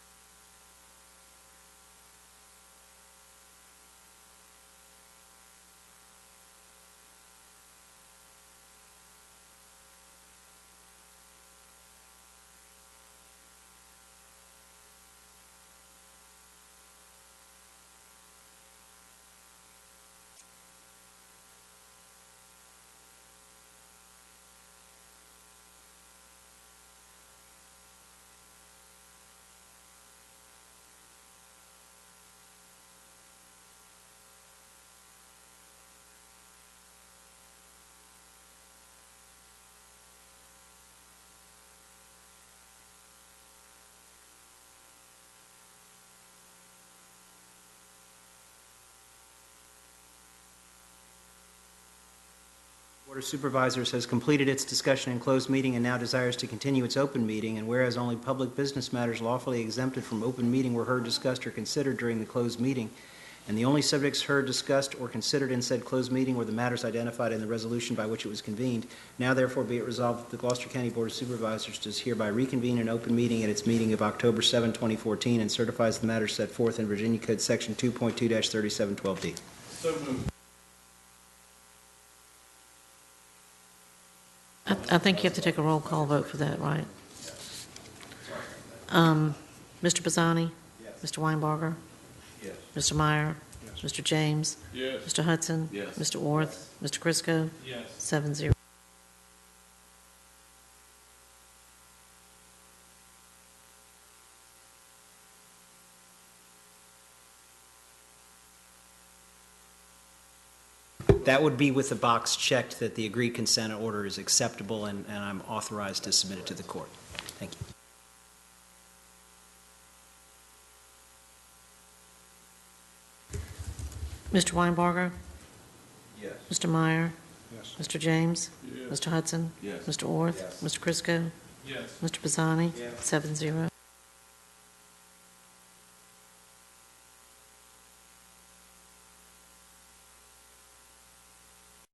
of Supervisors has completed its discussion in closed meeting and now desires to continue its open meeting, and whereas only public business matters lawfully exempted from open meeting were heard, discussed, or considered during the closed meeting, and the only subjects heard, discussed, or considered in said closed meeting were the matters identified in the resolution by which it was convened, now therefore be it resolved that the Gloucester County Board of Supervisors does hereby reconvene an open meeting at its meeting of October 7, 2014, and certifies the matters set forth in Virginia Code Section 2.2-3712D. So moved. I, I think you have to take a roll call vote for that, right? Um, Mr. Pisani, Mr. Weinbarger? Yes. Mr. Meyer? Mr. James? Yes. Mr. Hudson? Yes. Mr. Orth? Mr. Crisco? Yes. Seven zero. That would be with the box checked that the agreed consent order is acceptable, and, and I'm authorized to submit it to the court. Thank you. Mr. Weinbarger? Yes. Mr. Meyer? Yes. Mr. James? Yes. Mr. Hudson? Yes. Mr. Orth? Yes. Mr. Crisco? Yes. Mr. Pisani? Yes. Seven zero.